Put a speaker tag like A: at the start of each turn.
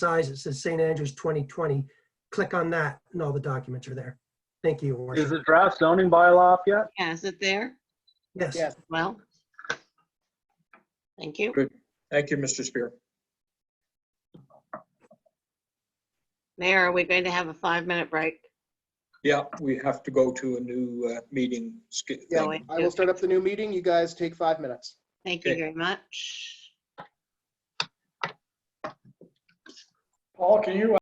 A: size, it says St. Andrews 2020. Click on that and all the documents are there. Thank you, Your
B: Is
A: Worship.
B: the draft zoning bylaw up yet?
C: Yeah, is it there?
A: Yes,
D: Yes.
C: Well. Thank you.
D: Thank you, Mr. Spear.
C: Mayor, are we going to have a five-minute break?
D: Yeah, we have to go to a new uh, meeting. sk-
C: Yeah.
D: thing.
C: I
E: I
C: will
E: will start up the new meeting. You guys take five minutes.
C: Thank you
D: Okay.
C: very much.
F: Paul, can you